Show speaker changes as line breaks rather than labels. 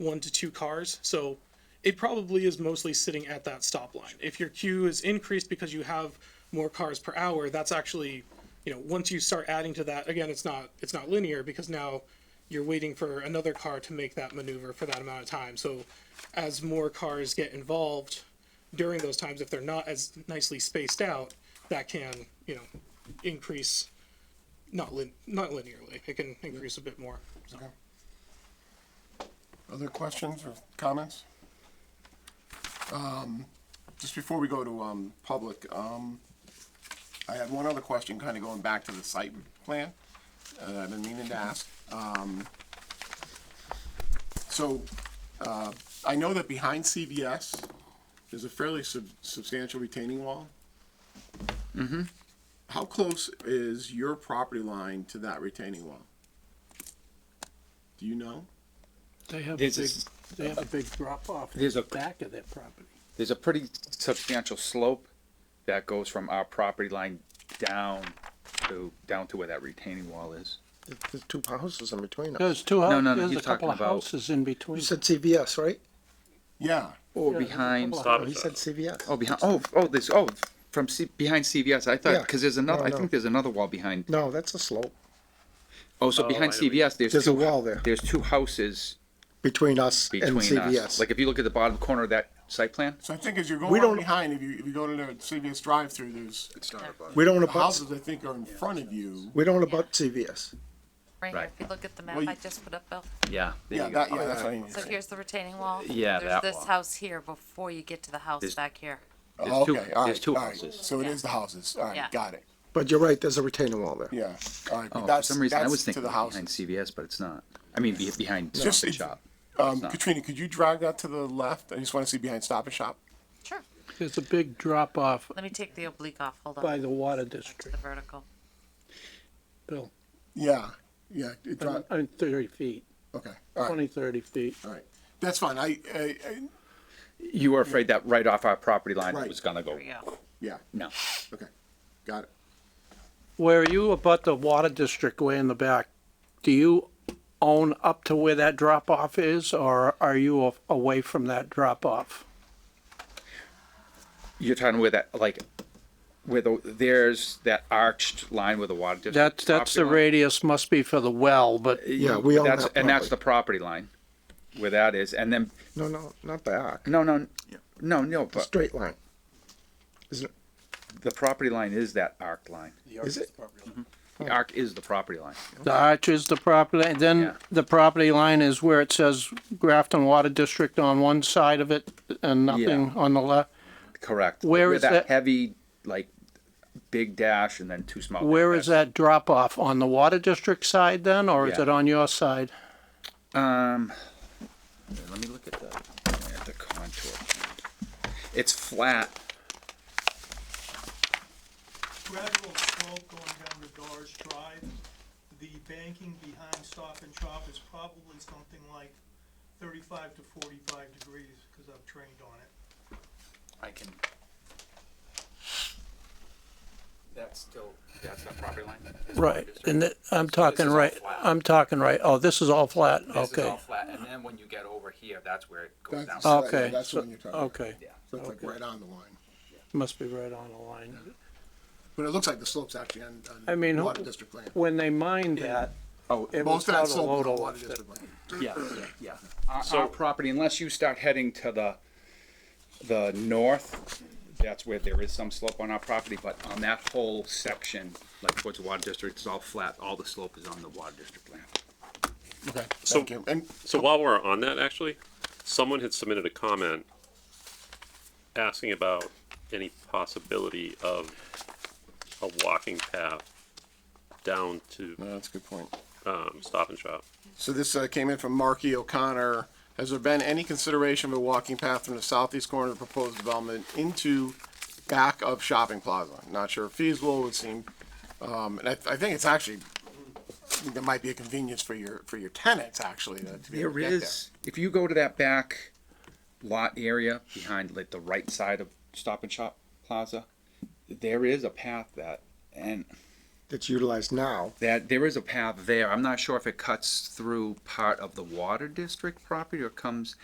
one to two cars. So it probably is mostly sitting at that stop line. If your queue is increased because you have more cars per hour, that's actually, you know, once you start adding to that, again, it's not it's not linear because now you're waiting for another car to make that maneuver for that amount of time. So as more cars get involved during those times, if they're not as nicely spaced out, that can, you know, increase not lin- not linearly. It can increase a bit more. So.
Okay. Other questions or comments? Um, Just before we go to um, public, um, I had one other question, kind of going back to the site plan uh, I've been meaning to ask. Um, So uh, I know that behind CVS, there's a fairly sub- substantial retaining wall. How close is your property line to that retaining wall? Do you know?
They have a
There's a
big,
s-
they have a big drop off in
There's
the
a-
back of that property.
There's a pretty substantial slope that goes from our property line down to, down to where that retaining wall is.
There's two houses in between us.
There's two, hou-
No, no, no,
there's
he's
a couple of
talking about-
houses in
You
between.
said CVS, right?
Yeah.
Yeah,
Or
there's a
behind,
couple of
Oh, He said CVS.
oh, behind, oh, oh, there's, oh, from C, behind CVS, I
Yeah.
thought, cause there's another,
No,
I
no.
think there's another wall behind.
No, that's a slope
Oh, so behind CVS, there's two.
There's a wall there.
There's two houses
between us and
between us.
CVS.
Like if you look at the bottom corner of that site plan,
So I think as you're going
We
on
don't-
behind, if you, if you go to the CVS drive-through, there's
We don't
the
abut,
houses I think are in front of you.
we don't abut CVS.
Right here,
Right.
if you look at the
Well,
map
you-
I just put up, Bill,
yeah. there
Yeah,
you go.
that, yeah, that's what I mean.
so here's the retaining wall.
Yeah, that
There's this
wall.
house here before you get to the house
This-
back here.
Oh,
There's two-
okay, all
there's
right,
two
all right.
houses.
So it
Yeah.
is the houses. All
Yeah.
right, got it.
But you're right, there's a retaining wall there.
Yeah, all right.
Oh,
But
for
that's,
some reason, I was
that's to
thinking
the
behind
houses.
CVS, but it's not. I mean, be- behind
Just
Stop and
if-
Shop.
Um,
not.
Katrina, could you drag that to the left? I just want to see behind Stop and Shop.
Sure.
There's a big drop off
Let me take the oblique off, hold on.
by the water
Back to
district,
The vertical.
Bill.
Yeah, yeah, it dri-
I mean, thirty feet,
okay, all right,
twenty, thirty feet.
all right. That's fine. I, I, I-
You were afraid that right off our property line
Right.
was gonna go,
There we go.
yeah,
no.
okay, got it.
Where you abut the water district way in the back, do you own up to where that drop off is or are you a- away from that drop off?
You're talking where that, like, where the, there's that arched line where the water district.
That's, that's the
property
radius must be for the well, but
line-
Yeah, we own
That's-
that
And that's
property.
the property line, where that is, and then,
No, no, not the arc,
no, no, no, no,
the
but
straight line. Isn't it?
the property line is that arced line.
Is it?
Mm-hmm.
The arc is the property line.
The arch is the property, and then
Yeah.
the property line is where it says Grafton Water District on one side of it and nothing on the left.
Correct.
Where is that-
Heavy, like, big dash and then two small.
Where is that drop off? On the Water District side then, or is
Yeah.
it on your side?
Um, here, let me look at the, at the contour. It's flat.
gradual slope going down to Dodge Drive. The banking behind Stop and Shop is probably something like thirty-five to forty-five degrees, because I've trained on it.
I can. That's still, that's the property line?
Right, and that- I'm talking right, I'm talking right, oh, this is all flat, okay,
flat, and then when you get over here, that's where it
That's,
down.
yeah,
Okay,
that's
so-
the one you're talking about.
okay.
So it's like right on the line.
Must be right on the line.
But it looks like the slope's actually on, on
I mean, who-
Water District land.
When they mined that,
Oh,
it
Most
was
of that
out of
slope is on
Lodell.
Water District land.
yeah, yeah, yeah. Our, our property, unless you start heading to the, the north, that's where there is some slope on our property, but on that whole section, like towards the water district, it's all flat, all the slope is on the water district land.
Okay,
So-
thank you. And
So while we're on that, actually, someone had submitted a comment asking about any possibility of a walking path down to
No, that's a good point.
um, Stop and Shop.
So this uh, came in from Marky O'Connor. Has there been any consideration of a walking path from the southeast corner of the proposed development into back of shopping plaza? Not sure if feasible, would seem, um, and I, I think it's actually, I think that might be a convenience for your, for your tenants, actually, to to be able
There
to get there.
is, if you go to that back lot area behind like the right side of Stop and Shop Plaza, there is a path that, and
that's utilized now.
that there is a path there. I'm not sure if it cuts through part of the water district property or comes